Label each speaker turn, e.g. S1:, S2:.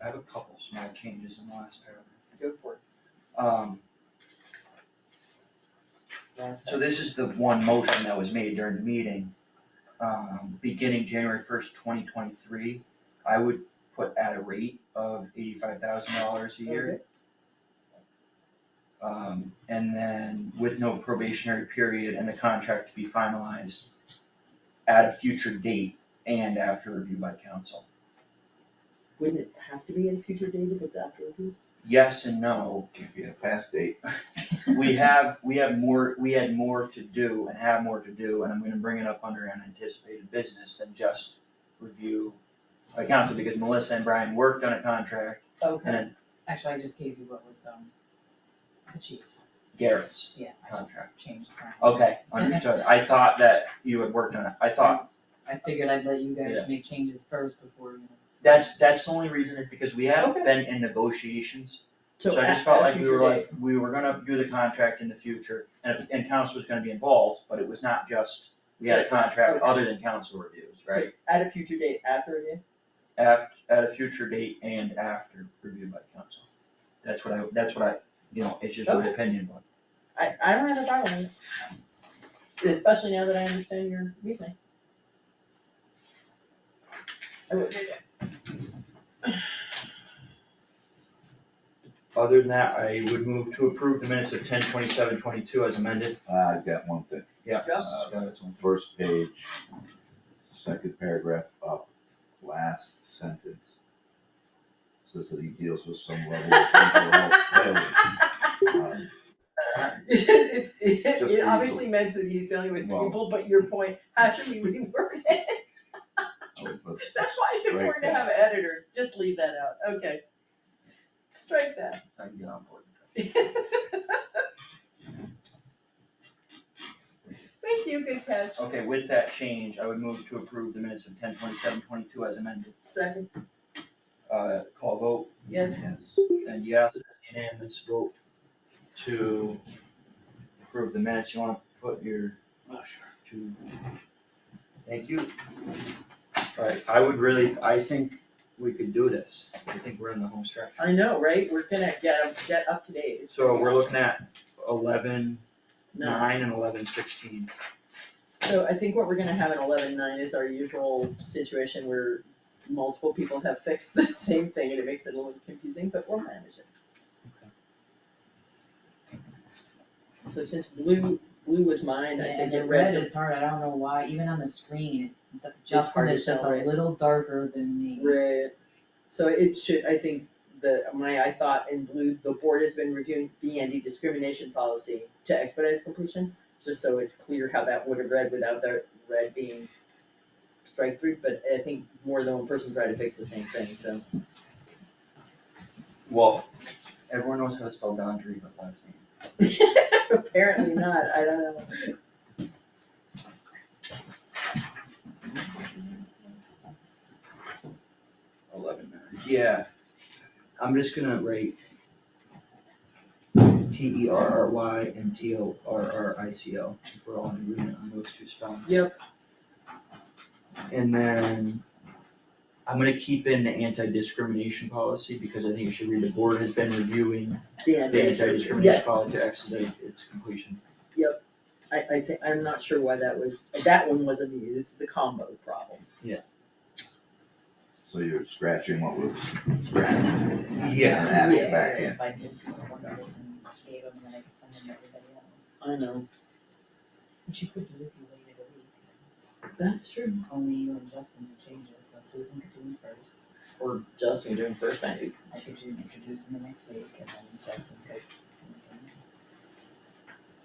S1: have a couple small changes in the last paragraph.
S2: Go for it.
S1: Um,
S2: Last
S1: so this is the one motion that was made during the meeting. Um, beginning January first, twenty twenty-three, I would put at a rate of eighty-five thousand dollars a year. Um, and then with no probationary period and the contract to be finalized at a future date and after review by council.
S2: Wouldn't it have to be in future date if it's after review?
S1: Yes and no,
S3: Give you a fast date.
S1: we have, we have more, we had more to do and have more to do, and I'm gonna bring it up under unanticipated business than just review by council, because Melissa and Brian worked on a contract,
S4: Okay,
S1: and
S4: actually, I just gave you what was, um, the chief's,
S1: Garrett's
S4: yeah, I just
S1: contract.
S4: changed that.
S1: Okay, understood, I thought that you had worked on it, Oh, I thought
S4: I figured I'd let you
S1: Yeah.
S4: guys make changes first before, you know.
S1: That's, that's the only reason is because we haven't
S2: Okay.
S1: been in negotiations, so I
S2: at-
S1: just felt
S2: at
S1: like we
S2: future
S1: were
S2: date.
S1: like, we were gonna do the contract in the future, and if, and council was gonna be involved, but it was not just, we had a
S2: Just that,
S1: contract
S2: okay.
S1: other than council reviews, right?
S2: At a future date, after review?
S1: Af, at a future date and after review by council. That's what I, that's what I, you know, it's just my
S2: Okay.
S1: opinion, but,
S2: I, I don't have a problem with it. Especially now that I understand your reasoning. I would-
S1: other than that, I would move to approve the minutes of ten twenty-seven twenty-two as amended.
S3: Uh, I've got one thing,
S1: Yeah.
S2: Yeah.
S1: uh, that's one.
S3: first page, second paragraph up, last sentence. Says that he deals with some level of mental health failure. Um,
S2: It, it,
S3: Just
S2: it
S3: reasonable.
S2: obviously meant that he's dealing with
S3: Well-
S2: people, but your point, how should we reword it?
S3: I would put-
S2: That's why it's
S3: Strike
S2: important to
S3: that.
S2: have editors, just leave that out, okay. Strike that.
S1: I can get on board.
S2: Thank you, good catch.
S1: Okay, with that change, I would move to approve the minutes of ten twenty-seven twenty-two as amended.
S2: Second,
S1: uh, call vote,
S2: yes,
S3: Yes.
S1: and yes, unanimous vote to approve the minutes, you wanna put your. To. Thank you. Alright, I would really, I think we could do this, I think we're in the home stretch.
S2: I know, right? We're gonna get, up- get up to date. It's
S1: So we're
S2: awesome.
S1: looking at eleven
S2: No.
S1: nine and eleven sixteen.
S2: So I think what we're gonna have in eleven nine is our usual situation where multiple people have fixed the same thing and it makes it a little confusing, but we'll manage it. So since blue, blue was mine, I
S4: And
S2: think
S4: the
S2: it
S4: red
S2: red
S4: is hard, I don't know why, even on the screen, the-
S2: hard
S4: Justin
S2: to
S4: is just
S2: tell,
S4: a
S2: right?
S4: little darker than me.
S2: red. So it should, I think, the, my, I thought in blue, the board has been reviewing the anti-discrimination policy to expedite its completion, just so it's clear how that would have read without the red being strike through, but I think more than one person tried to fix the same thing, so.
S1: Well, everyone knows how to spell Dondry, but last name.
S2: Apparently not, I don't know.
S1: Eleven nine. Yeah, I'm just gonna write T E R R Y and T O R R I C O, if we're all in agreement on those two spellings.
S2: Yep.
S1: And then I'm gonna keep in the anti-discrimination policy, because I think it should read, the board has been reviewing
S2: Yeah,
S1: the anti-discrimination
S2: Yes.
S1: policy to expedite its completion.
S2: I, I think, I'm not sure why that was, that one wasn't me, it's the combo problem.
S3: So you're scratching what was scratched.
S1: Yeah.
S3: And adding it
S2: Yes.
S3: back in.
S4: If I did one person gave them, then I could send them to everybody else.
S2: I know,
S4: Which you could do if you waited a week.
S2: that's true,
S4: Only you and Justin would change it, so Susan could do it first.
S2: or Justin doing first, I
S4: I could do, introduce in the next week and then Justin could